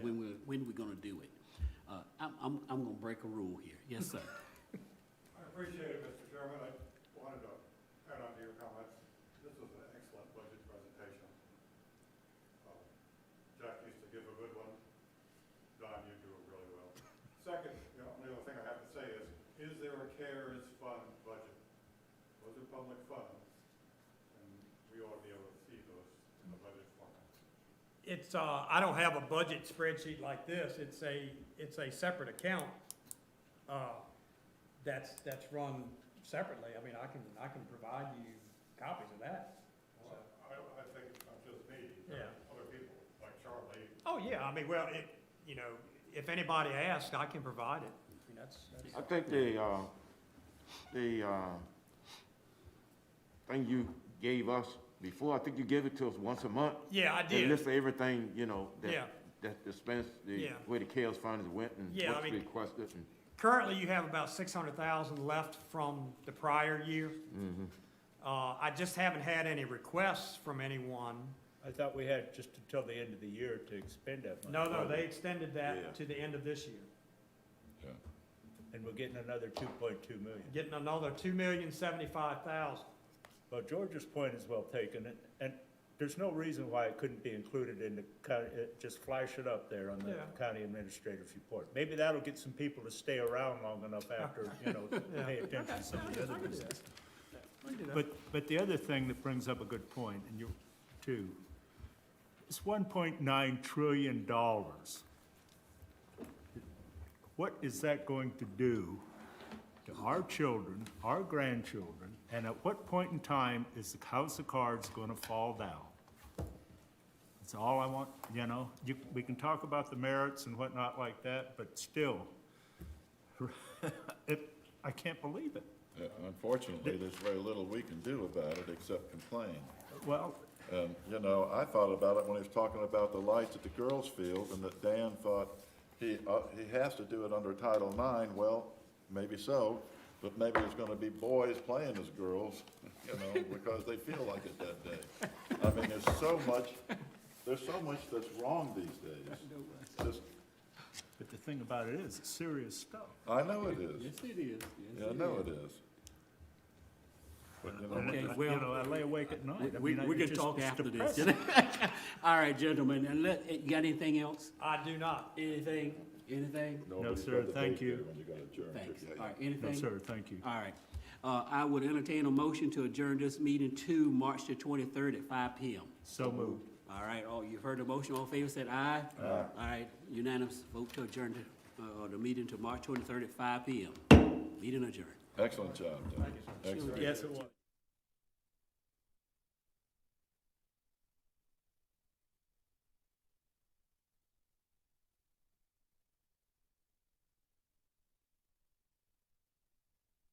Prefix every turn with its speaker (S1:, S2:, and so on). S1: when we're gonna do it. Uh, I'm, I'm, I'm gonna break a rule here. Yes, sir.
S2: I appreciate it, Mr. Chairman. I wanted to add on to your comments. This was an excellent budget presentation. Uh, Jack used to give a good one. Don, you do it really well. Second, the only other thing I have to say is, is there a CARES fund budget? Those are public funds, and we ought to be able to see those in the budget format.
S3: It's, uh, I don't have a budget spreadsheet like this, it's a, it's a separate account, uh, that's, that's run separately, I mean, I can, I can provide you copies of that.
S2: Well, I, I think it's not just me, but
S3: Yeah.
S2: other people, like Charlie,
S3: Oh, yeah, I mean, well, it, you know, if anybody asks, I can provide it, I mean, that's, that's.
S4: I think the, uh, the, uh, thing you gave us before, I think you gave it to us once a month.
S3: Yeah, I
S4: And
S3: did,
S4: list everything, you know,
S3: Yeah.
S4: that, that dispense, the,
S3: Yeah.
S4: where the chaos funds went and
S3: Yeah, I
S4: what's
S3: mean-
S4: requested and.
S3: currently you have about six hundred thousand left from the prior year.
S4: Mm-hmm.
S3: Uh, I just haven't had any requests from anyone,
S5: I thought we had just until the end of the year to expend that money.
S3: no, no, they extended
S4: Yeah.
S3: that to the end of this year.
S5: And we're getting another two point two million.
S3: getting another two million seventy-five thousand.
S5: Well, George's point is well taken, and, and there's no reason why it couldn't be included in the county, uh, just flash it up there on the
S3: Yeah.
S5: county administrator's report. Maybe that'll get some people to stay around long enough after, you know, to
S3: Yeah.
S5: pay attention to some of the other business.
S3: But,
S5: But, but the other thing that brings up a good point, and you, too, is one point nine trillion dollars. What is that going to do to our children, our grandchildren, and at what point in time is the house of cards gonna fall down? That's all I want, you know, you, we can talk about the merits and whatnot like that, but still, it, I can't believe it.
S6: Uh, Unfortunately, there's very little we can do about it except complain.
S5: Well,
S6: And, you know, I thought about it when he was talking about the lights at the girls' field and that Dan thought he, uh, he has to do it under Title IX. Well, maybe so, but maybe there's gonna be boys playing as girls, you know, because they feel like it that day. I mean, there's so much, there's so much that's wrong these days. Just-
S5: But the thing about it is, it's serious stuff.
S6: I know it is.
S1: it is.
S6: Yeah, I know it is. But, you know,
S5: And,
S1: Okay,
S5: uh,
S1: well-
S5: You know, I lay awake at night. I
S1: We,
S5: mean, I-
S1: we
S5: it
S1: can
S5: just-
S1: talk
S5: it's
S1: after this.
S5: depressing.
S1: All right, gentlemen, and let, eh, you got anything else?
S3: I do not.
S1: Anything? Anything?
S6: Nobody's
S5: sir,
S6: got the
S5: thank
S6: date
S5: you.
S6: there When you're gonna adjourn.
S1: Thanks.
S6: Yeah,
S1: All right,
S5: No,
S1: anything?
S5: sir, thank you.
S1: All right. Uh, I would entertain a motion to adjourn this meeting to March the twenty-third at five P M.
S5: So moved.
S1: All right, all, you've heard the motion, all in favor said aye? Aye. All right, unanimous vote to adjourn the, uh, the meeting to March twenty-third at five P M. Meeting adjourned.
S6: Excellent job, Tom. Excellent.
S5: Yes, it was.